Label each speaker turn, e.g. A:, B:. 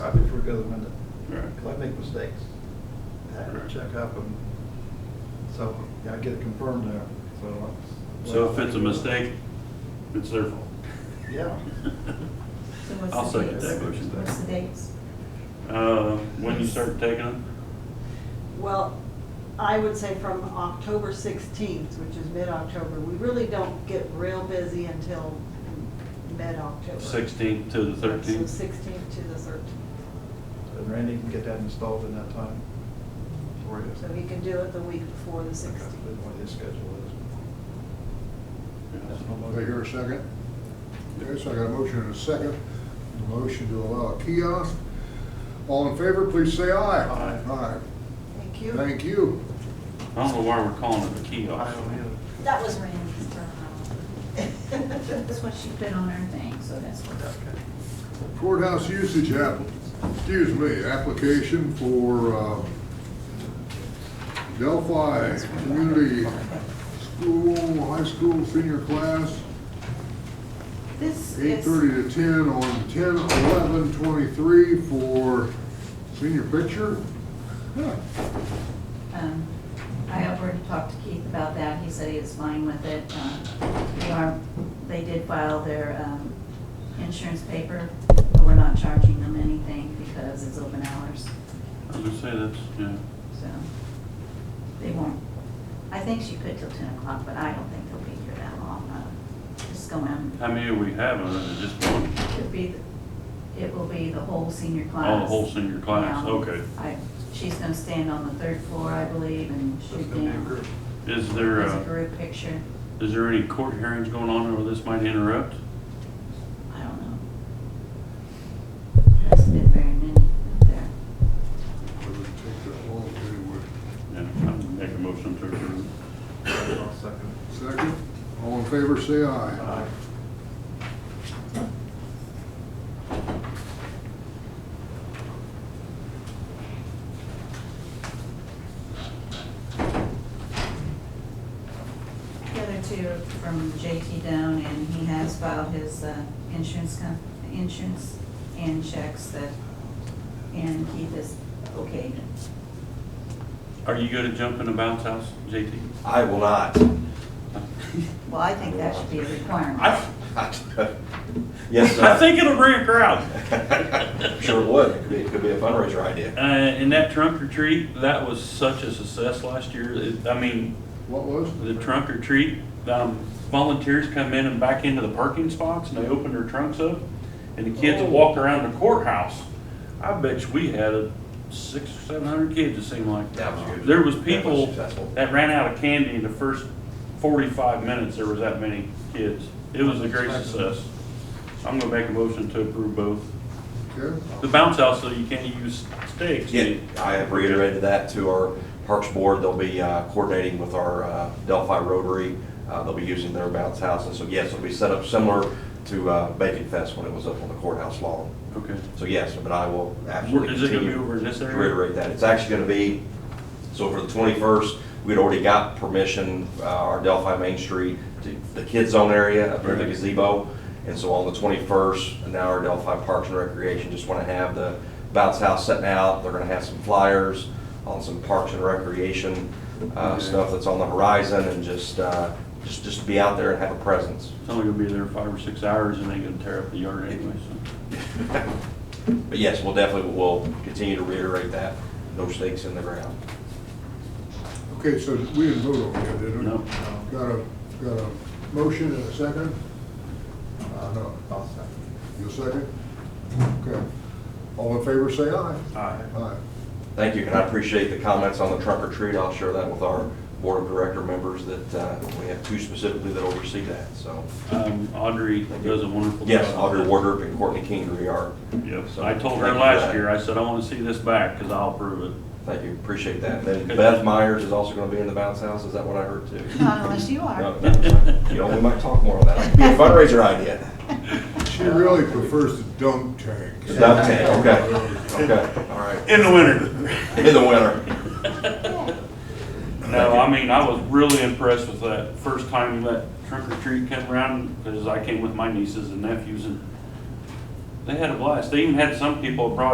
A: out the window.
B: Right.
A: Because I make mistakes. I have to check up and, so, yeah, I get it confirmed there, so. that's-
B: So if it's a mistake, it's their fault.
A: Yeah.
C: So what's
B: I'll
C: the
B: second
C: dates?
B: that motion.
C: What's the dates?
B: Uh, When you start taking them?
D: Well, I would say from October 16th, which is mid-October, we really don't get real busy until mid-October.
B: 16th to the
D: So
B: 13th?
D: 16th to the 13th.
A: And Randy can get that installed in that time. for you.
D: So he can do it the week before the
A: I don't
D: 16th.
A: know what his schedule is. That's
B: Yeah.
A: no
E: Do I hear a
A: motion.
E: second? Okay, so I got a motion and a second. A Motion to allow a kiosk. All in favor, please say aye.
A: Aye.
D: Thank you.
E: Thank you.
B: I don't know why we're calling it a
A: I
B: kiosk.
A: don't either.
C: That was Randy's terminology. That's what she put on her thing, so that's what.
A: Okay.
E: Courthouse usage app, excuse me, application for uh, Delphi Community School, high school senior class,
C: This
E: eight
C: is,
E: thirty to ten on ten eleven twenty-three for senior picture. Huh.
C: um, I offered to talk to Keith about that. He said he was fine with it. Uh, They are, they did file their, um, insurance paper, but we're not charging them anything because it's open hours,
B: I was gonna say that's, yeah.
C: so. They won't, I think she could till ten o'clock, but I don't think they'll be here that long. Uh, Just go in.
B: How many do we have? Uh, Just one?
C: It'll be, the- it will be the whole senior class.
B: Oh, the whole senior class,
C: Yeah.
B: okay.
C: I, she's gonna stand on the third floor, I believe, and
A: That's
C: shoot
A: gonna be a
C: down.
A: group.
B: Is there,
C: There's a
B: uh,
C: group picture,
B: is there any court hearings going on where this might interrupt?
C: I don't know. That's been very many up there.
E: Doesn't take that long anyway.
B: Yeah, I'm making a motion to approve.
A: I'll second
E: Second, all in favor, say
A: it.
E: aye.
A: Aye.
C: The other two are from JT Down, and he has filed his uh, insurance, com- insurance and checks that, and Keith is okay.
B: Are you gonna jump in the bounce house, JT?
F: I will not.
C: Well, I think that should be a requirement.
B: I,
F: Yes,
B: I
F: sir.
B: think it'll bring a crowd.
F: I'm Sure it would. It could be, it could be a fundraiser idea.
B: Uh, and that trunk or treat, that was such a success last year. It- I mean,
E: What was?
B: the trunk or treat, um, volunteers come in and back into the parking spots and they open their trunks up and the kids walk around the courthouse. I bet you we had a six, or seven hundred kids, it seemed like.
F: That was good.
B: There was
F: That was
B: people
F: successful.
B: that ran out of candy in the first forty-five minutes, there was that many kids. It was a great success. I'm gonna make a motion to approve both.
E: Okay,
B: The bounce house, though, you can't use sticks.
F: Yeah, I have reiterated that to our Parks Board. They'll be uh, coordinating with our uh, Delphi Rotary. Uh, They'll be using their bounce house. And so yes, it'll be set up similar to uh, Bacon Fest when it was up on the courthouse lawn.
B: Okay.
F: So yes, but I will absolutely
B: Is it gonna
F: continue.
B: be over in this
F: to
B: area?
F: Reiterate that. It's actually gonna be, so for the twenty-first, we'd already got permission, uh, our Delphi Main Street, to the kids' zone area, up near the
B: Right.
F: gazebo. And so on the twenty-first, now our Delphi Parks and Recreation just wanna have the bounce house setting out. They're gonna have some flyers on some Parks and Recreation, uh,
B: Okay.
F: stuff that's on the horizon and just, uh, just, just be out there and have a presence.
B: It's only gonna be there five or six hours and they gonna tear up the yard anyway, so.
F: But yes, we'll definitely, we'll continue to reiterate that, no stakes in the ground.
E: okay, so we didn't vote on that, did we?
B: No.
E: Got a, got a motion and a second? Uh, no,
A: I'll second.
E: you second? Okay. All in favor, say aye.
B: Aye.
E: Aye.
F: Thank you, and I appreciate the comments on the trunk or treat. I'll share that with our board of director members that uh, we have two specifically that oversee that, so.
B: Um, Audrey does a wonderful job.
F: Yes, Audrey Wardrop and Courtney Kingery are.
B: Yes,
F: so
B: I told
F: thank
B: her
F: you for
B: last
F: that.
B: year, I said, I wanna see this back, cause I'll approve it.
F: Thank you, appreciate that. Then Beth Myers is also going to be in the bounce house, is that what I heard too?
D: Uh,
C: Not unless you are.
F: No, no, You know, we might talk more on that. It'd Be a fundraiser idea.
E: She really prefers the dunk tank.
F: The dunk tank, okay, okay, all right.
B: In the winter.
F: In the winter.
B: No, I mean, I was really impressed with that first time that trunk or treat came around, cause I came with my nieces and nephews and they had a blast. They even had some people brought